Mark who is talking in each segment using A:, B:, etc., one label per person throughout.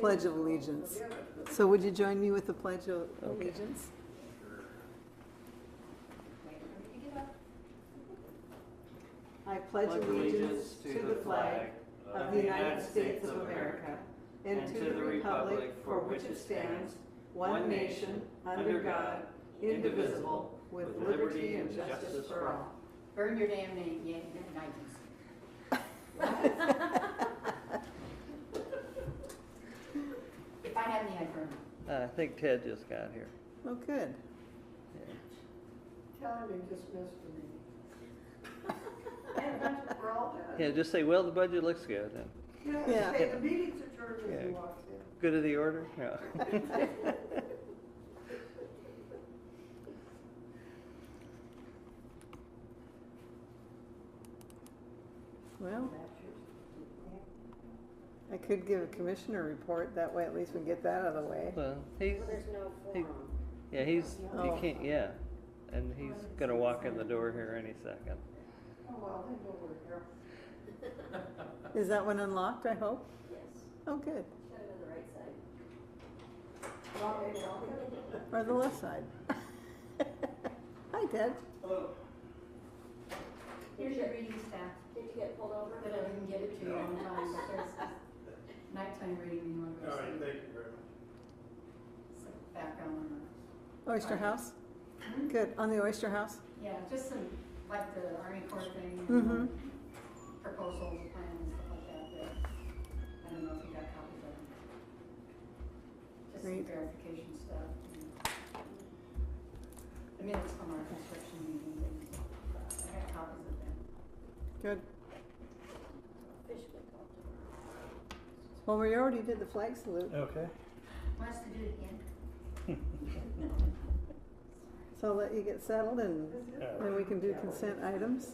A: Pledge of Allegiance. So would you join me with the Pledge of Allegiance? I pledge allegiance to the flag of the United States of America and to the republic for which it stands, one nation, under God, indivisible, with liberty and justice for all.
B: Burn your damn name, yeah, Nikes. If I had any, I'd burn them.
C: I think Ted just got here.
A: Oh, good.
C: Yeah.
D: Tell him you just missed the meeting. And that's- We're all done.
C: Yeah, just say, well, the budget looks good. and
A: Yeah.
D: Yeah, say the meeting's adjourned as he
C: Yeah.
D: walks in.
C: Good of the order? Yeah.
A: Well, I could give a commissioner report, that way at least we get that out of the way.
C: Well, he's,
E: Well, there's no
C: Hey.
E: forum.
C: yeah, he's, you
A: Oh.
C: can't, yeah. And he's gonna walk in the door here any second.
D: Oh, well, they know we're here.
A: Is that one unlocked, I hope?
E: Yes,
A: Oh, good.
E: shut it on the right side.
D: Well, they know.
A: Or the left side. Hi, Ted.
B: Here's your reading staff,
E: Did you get pulled over?
B: but I didn't get it to you on time, but there's nighttime reading, you want to go
F: All
B: to
F: right,
B: sleep.
F: thank you very much.
B: Some Background on that.
A: Oyster House? Good, on the Oyster House?
B: Yeah, just some, like the Army Corps thing.
A: Mhm.
B: Proposals, plans, and stuff like that, but I don't know if you got copies of them. Just some
A: Great.
B: verification stuff. and The minutes from our construction meeting, and I got copies of them.
A: Good.
E: Officially called tomorrow.
A: Well, we already did the flag salute,
F: Okay.
B: Want us to do it again?
A: so I'll let you get settled and
F: All
A: then we can do consent items.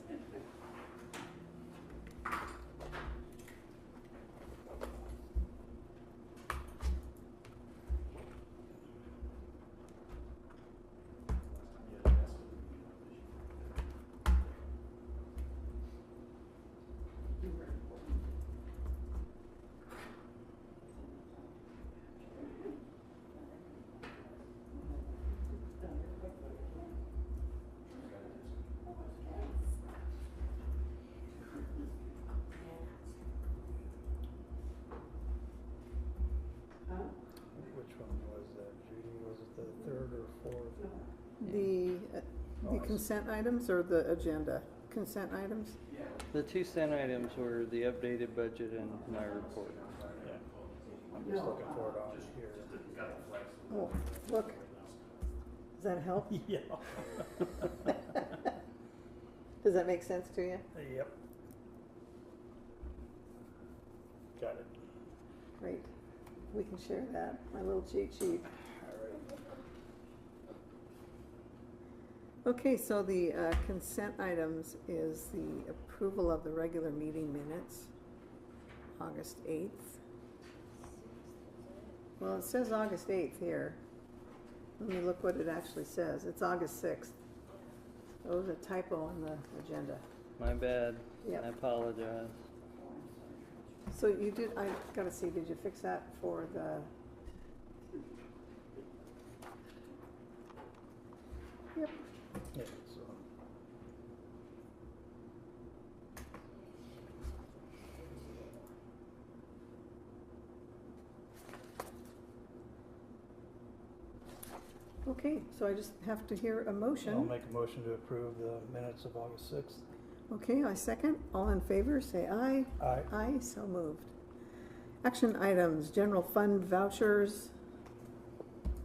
D: Huh?
F: Which one was that, Judy? Was it the third or fourth?
D: No.
A: The, uh, the consent items or the agenda? Consent items?
C: The two cent items were the updated budget and my report.
F: I'm just looking for it on here.
A: Oh, look. Does that help? Does that make sense to you?
F: Yeah. Yep. Got it.
A: Great. We can share that, my little cheat sheet.
F: All right.
A: Okay, so the uh, consent items is the approval of the regular meeting minutes, August 8th. Well, it says August 8th here. Let me look what it actually says. It's August 6th. There was a typo on the agenda.
C: My bad.
A: Yep.
C: I apologize.
A: So you did, I gotta see, did you fix that for the? Yep,
F: Yeah, so,
A: okay, so I just have to hear a motion.
F: I'll make a motion to approve the minutes of August sixth.
A: Okay, I second. All in favor, say aye.
F: Aye.
A: Aye, so moved. Action items, general fund vouchers.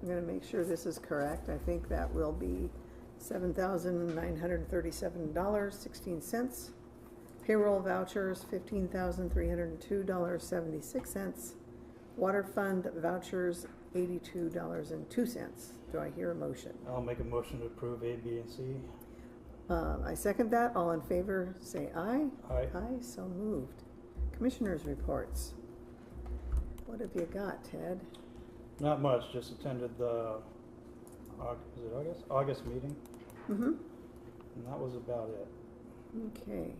A: I'm gonna make sure this is correct. I think that will be seven thousand nine hundred and thirty-seven dollars, sixteen cents. Payroll vouchers, fifteen thousand three hundred and two dollars, seventy-six cents. Water fund vouchers, eighty-two dollars and two cents. Do I hear a motion?
F: I'll make a motion to approve A, B, and C.
A: Uh, I second that. All in favor, say aye.
F: Aye.
A: Aye, so moved. Commissioners' reports. What have you got, Ted?
F: Not much, just attended the, Aug- is it August? August meeting,
A: Mm-hmm.
F: and that was about it.
A: Okay.